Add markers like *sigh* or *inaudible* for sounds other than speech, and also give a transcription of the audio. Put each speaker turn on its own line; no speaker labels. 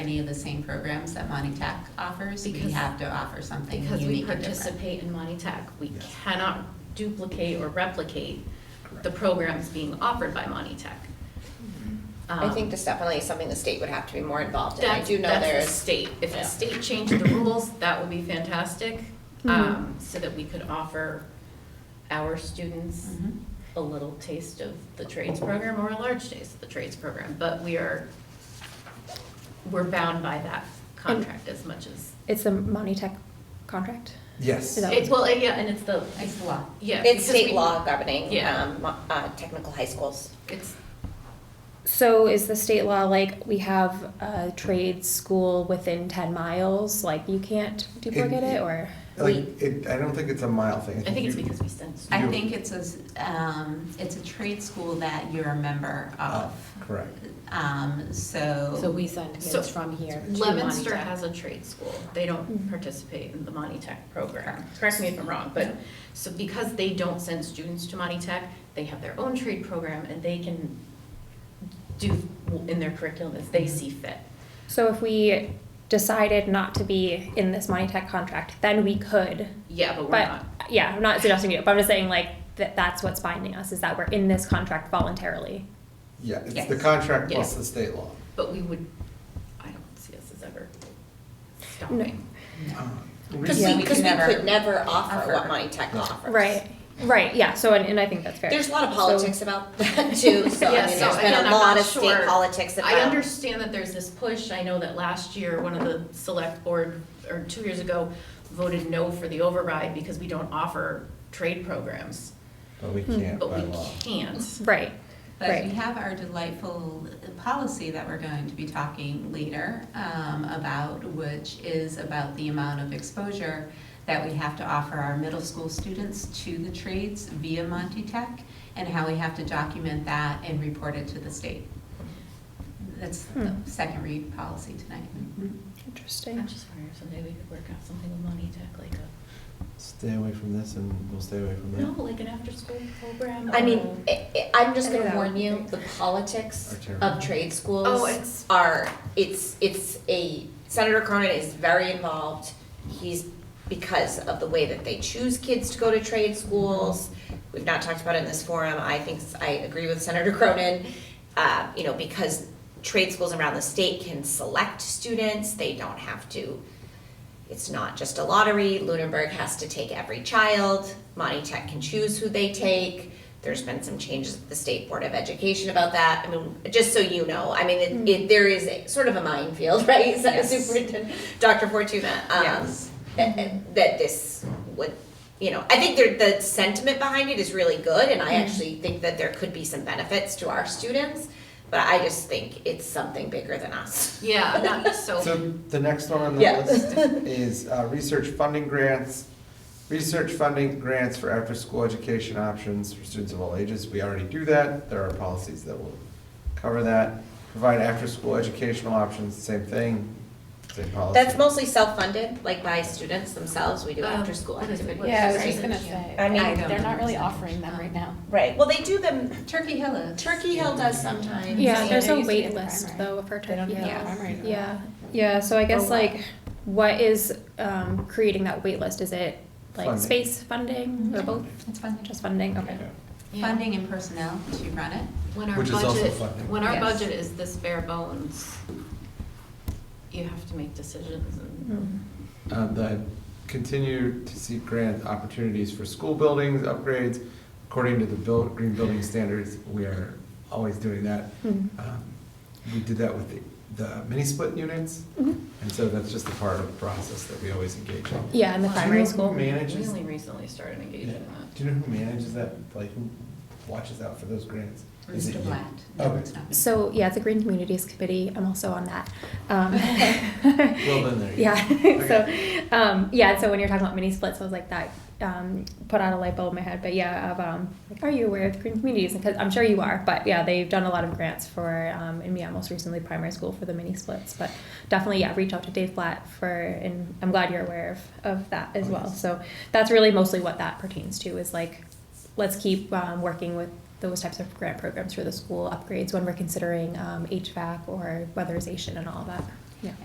any of the same programs that Monty Tech offers, we
Because-
have to offer something
Because we
unique and different.
participate in Monty Tech, we
Yes.
cannot duplicate or replicate the
Correct.
programs being offered by Monty Tech.
I think
Um,
this definitely is something the state would have to be more involved in. I
That's,
do know
that's the
there's,
state. If the
Yeah.
state changed the rules, that would be fantastic,
Mm-hmm.
um, so that we could offer our students
Mhm.
Mm-hmm.
a little taste of the trades program or a large taste of the trades program. But we are, we're bound by that contract as much as,
It's the Monty Tech contract.
Yes.
Is that-
it's, well, yeah, and it's the,
It's the law.
yeah.
it's
because
state
we-
law governing,
Yeah.
um, mo- uh, technical high schools.
It's
So is the state law like we have a trade school within ten miles? Like you can't duplicate it, or
Like, it, I don't think it's a mile thing.
I think it's
you-
because we send
I
You-
think it's a, s- um, it's a trade school that you're a member of.
Correct.
Um, so,
we send
So-
kids from here to Monty
Lemonster
Tech.
has a trade school. They don't
Mhm.
participate in the Monty Tech program. Correct me if I'm wrong, but, so because they don't send students to Monty Tech, they have their own trade program and they can do in their curriculum as they see fit.
so if we decided not to be in this Monty Tech contract, then we could.
Yeah, but we're
But-
not.
Yeah, I'm not suggesting it, but I'm just saying like that that's what's binding us is that we're in this contract voluntarily.
Yeah, it's the
Yes.
contract plus
Yeah.
the state law.
But we would, I don't see us as ever
No.
stopping.
Because
Yeah,
we,
we
because
could
we
never
could never offer what
offer.
Monty Tech offers.
Right. Right. Yeah. So and, and I think that's fair.
There's a lot of
So-
politics about *laughs*
*laughs*
that too, so I
Yeah,
mean,
so
there's been
again,
a
I'm
lot
not
of state
sure.
politics about.
I understand that there's this push. I know that last year, one of the select board, or two years ago, voted no for the override because we don't offer trade programs,
But we
Hmm.
can't
but
by
we
law.
can't.
Right.
but
Right.
we have our delightful policy that we're going to be talking later um, about, which is about the amount of exposure that we have to offer our middle school students to the trades via Monty Tech and how we have to document that and report it to the state. That's the
Hmm. Mm-hmm.
second read policy tonight.
Interesting.
I'm just wondering if someday we could work out something with Monty Tech, like a,
Stay away from this and we'll stay away from that.
no, like an after-school program.
I
or-
mean, I, I- I'm just
I think
gonna
that
warn
would be
you,
great.
the politics
Are terrible.
of trade schools
Oh, it's-
are, it's, it's a, Senator Cronin is very involved. He's, because of the way that they choose kids to go to trade schools. We've not talked about it in this forum. I think, s- I agree with Senator *laughs* Cronin. Uh, you know, because trade schools around the state can select students, they don't have to it's not just a lottery. Lunenburg has to take every child. Monty Tech can choose who they take. There's been some changes at the State Board of Education about that. I mean, just so you know, I mean, it, it, there is a, sort of a minefield, *laughs* right? So-
Mm. Yes.
Superintendent, Dr. Fortuna, um,
Yes.
that, that this would, you know, I think there, the sentiment behind it is really good, and
Mm.
I actually think that there could be some benefits to our students, but I just think it's something bigger than us.
Yeah, *laughs* not,
So
so,
the next one on the
Yeah.
list is uh, research funding grants. Research funding grants for after-school education options for students of all ages. We already do that. There are policies that will cover that. Provide after-school educational options, same thing, same policy.
That's mostly self-funded, like by students themselves, we do
Um,
after-school
what is it?
activities,
What
Yeah, I was
right?
just gonna
I
say,
mean,
I don't
they're not really
know.
offering them right now.
Right, well, they do them,
Turkey Hill is.
Turkey Hill does sometimes.
Yeah,
Yeah,
there's
there
a
used to be
wait
in the
list
primary.
though for
They don't
Turkey
do
Hill.
that
Yeah.
at primary now.
Yeah, Oh, yeah, so I guess
what?
like, what is, um, creating that wait list? is it like
Funding.
space funding, or both,
It's funding.
just funding, okay.
yeah.
Funding and personnel to run it.
when our
Which is also
budget,
funding.
when our
Yes.
budget is this bare bones, you have to make decisions and
Uh, the continue to seek grant opportunities for school buildings upgrades according to the buil- green building standards. We are always doing that.
Mhm.
Um, We did that with the, the mini split units,
Mhm.
and so that's just a part of the process that we always engage in.
Yeah, in the
Well, I
primary
Do you know who
school.
we
manages?
only recently started engaging
Yeah.
in that.
Do you know who manages that? Like who watches out for those grants? Is it
Mr.
you?
Blatt. No,
Okay.
it's not me.
So, yeah, it's a Green Communities Committee, I'm also on that. Um,
*laughs*
*laughs*
Well, then there you go.
Yeah, *laughs* so, um, yeah, so when you're talking about mini splits, I was like, that, um, put out a light bulb in my head, but yeah, of, um, like, are you aware of the green communities? Because I'm sure you are, but yeah, they've done a lot of grants for, um, and yeah, most recently primary school for the mini splits, but definitely, yeah, reach out to Dave Blatt for, and I'm glad you're aware of, of that as
Oh,
well.
yes.
So that's really mostly what that pertains to is like, let's keep, um, working with those types of grant programs for the school upgrades when we're considering, um, HVAC or weatherization and all of that.